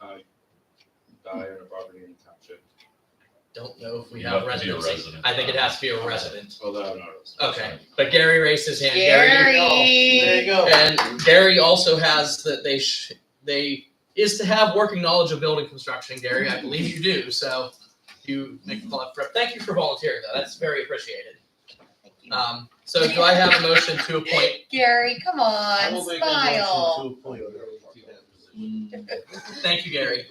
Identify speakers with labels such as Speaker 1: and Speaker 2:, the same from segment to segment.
Speaker 1: I die in a Barberina township,
Speaker 2: Don't know if we
Speaker 3: You
Speaker 2: have
Speaker 3: have to be a
Speaker 2: residency.
Speaker 3: resident.
Speaker 2: I think it has to be a resident.
Speaker 1: although I'm not. a resident.
Speaker 2: Okay, but Gary raised his hand. Gary.
Speaker 4: Gary.
Speaker 5: There you go.
Speaker 2: And Gary also has that they sh- they is to have working knowledge of building construction. Gary, I believe you do. So you make the call for Thank you for volunteering though. That's very appreciated.
Speaker 4: Thank you.
Speaker 2: Um, so do I have a motion to appoint?
Speaker 4: Gary, come
Speaker 5: I
Speaker 4: on,
Speaker 5: will make a motion
Speaker 4: smile.
Speaker 5: to appoint her to that position.
Speaker 2: Thank you, Gary.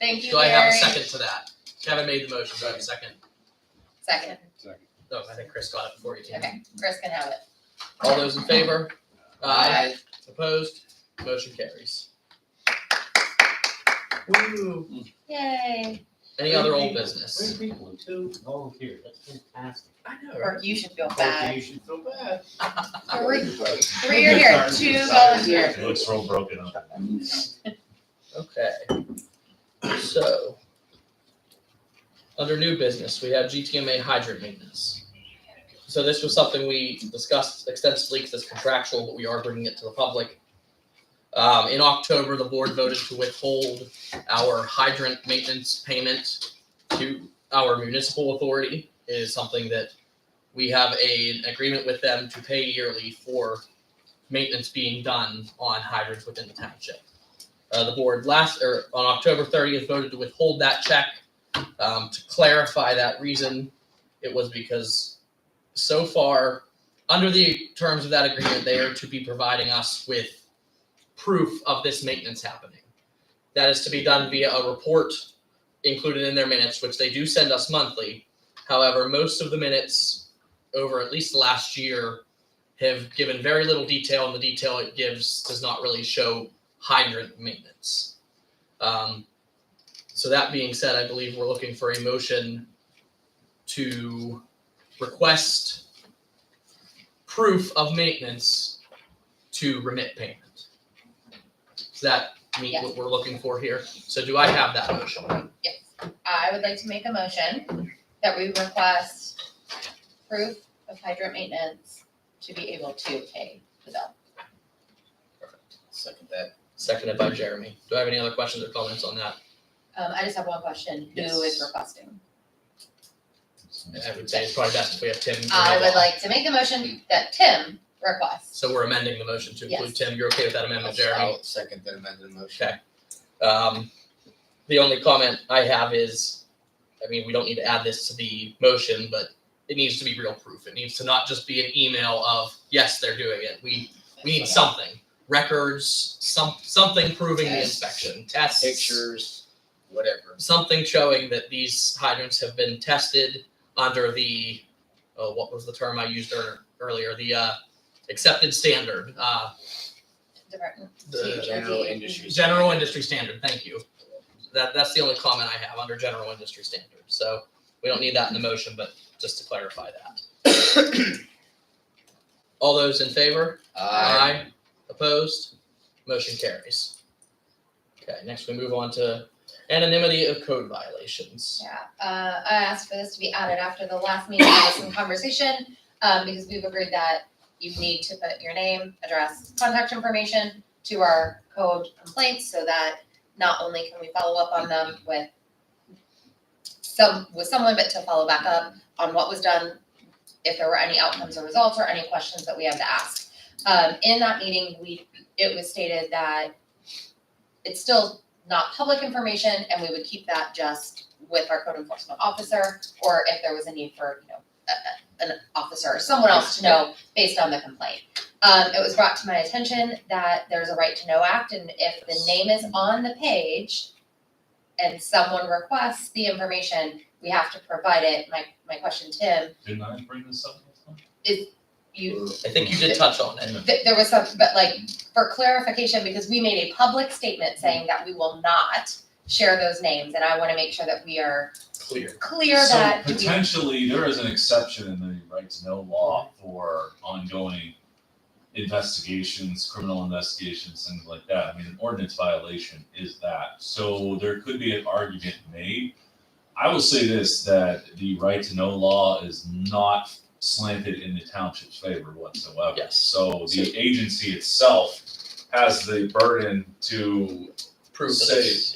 Speaker 4: Thank you,
Speaker 2: Do I have a
Speaker 4: Gary.
Speaker 2: second to that? Kevin made the motion. Do I have a second?
Speaker 4: Second.
Speaker 1: Second.
Speaker 2: No, I think Chris got it before you. did.
Speaker 4: Okay, Chris can have it.
Speaker 2: All those in favor? Aye. Opposed? Motion carries. Woo.
Speaker 4: Yay.
Speaker 2: Any other old
Speaker 5: Three
Speaker 2: business?
Speaker 5: people, two volunteers, that's fantastic.
Speaker 2: I know,
Speaker 4: Or you should feel
Speaker 5: Okay,
Speaker 4: bad.
Speaker 5: You should feel bad.
Speaker 4: Three, three are here, two volunteers.
Speaker 3: It looks real broken up.
Speaker 2: Okay. So, under new business, we have GTMA hydrant maintenance. So this was something we discussed extensively because it's contractual, but we are bringing it to the public. Um, in October, the board voted to withhold our hydrant maintenance payment to our municipal authority. It is something that we have a, an agreement with them to pay yearly for maintenance being done on hydrants within the township. Uh, the board last, or on October thirtieth, voted to withhold that check. Um, to clarify that reason, it was because so far, under the terms of that agreement, they are to be providing us with proof of this maintenance happening. That is to be done via a report included in their minutes, which they do send us monthly. However, most of the minutes over at least the last year have given very little detail, and the detail it gives does not really show hydrant maintenance. Um, so that being said, I believe we're looking for a motion to request proof of maintenance to remit payment. Does that meet what we're looking for here? So do I have that motion?
Speaker 4: Yes. I would like to make a motion that we request proof of hydrant maintenance to be able to pay the bill.
Speaker 2: Second that. Seconded by Jeremy. Do I have any other questions or comments on that?
Speaker 4: Um, I just have one question. Who
Speaker 2: Yes.
Speaker 4: is requesting?
Speaker 2: I would say it's probably best if we have Tim.
Speaker 4: I would
Speaker 2: Rowan.
Speaker 4: like to make a motion that Tim requests.
Speaker 2: So we're amending the motion to include
Speaker 4: Yes.
Speaker 2: Tim. You're okay with that amendment, Jeremy?
Speaker 6: I'll second that amended motion.
Speaker 2: Okay. Um, the only comment I have is, I mean, we don't need to add this to the motion, but it needs to be real proof. It needs to not just be an email of, yes, they're doing it. We, we need something, records, some, something proving the
Speaker 6: Tests.
Speaker 2: inspection, tests.
Speaker 6: Pictures, whatever.
Speaker 2: Something showing that these hydrants have been tested under the, oh, what was the term I used ear- earlier? The, uh, accepted standard, uh,
Speaker 4: Department.
Speaker 2: the.
Speaker 6: General industry.
Speaker 2: General industry standard, thank you. That, that's the only comment I have under general industry standard, so we don't need that in the motion, but just to clarify that. All those in favor?
Speaker 6: Aye.
Speaker 2: Opposed? Motion carries. Okay, next we move on to anonymity of code violations.
Speaker 4: Yeah, uh, I asked for this to be added after the last meeting, there was some conversation, um, because we've agreed that you need to put your name, address, contact information to our code complaints, so that not only can we follow up on them with some, with someone, but to follow back up on what was done, if there were any outcomes or results or any questions that we had to ask. Um, in that meeting, we, it was stated that it's still not public information, and we would keep that just with our code enforcement officer, or if there was a need for, you know, a, a- an officer or someone else to know based on the complaint. Um, it was brought to my attention that there's a right to know act, and if the name is on the page and someone requests the information, we have to provide it. My, my question, Tim,
Speaker 3: Didn't I bring this up? last time?
Speaker 4: you,
Speaker 2: I think you did touch on it.
Speaker 4: th- there was some, but like, for clarification, because we made a public statement saying that we will not share those names, and I wanna make sure that we are
Speaker 6: Clear.
Speaker 4: clear that
Speaker 3: So
Speaker 4: we
Speaker 3: potentially, there is an exception in the right to know law for ongoing investigations, criminal investigations, things like that. I mean, an ordinance violation is that. So there could be an argument made. I will say this, that the right to know law is not slanted in the township's favor whatsoever.
Speaker 2: Yes.
Speaker 3: So the agency itself has the burden to
Speaker 2: Prove that
Speaker 3: Say-
Speaker 2: it's-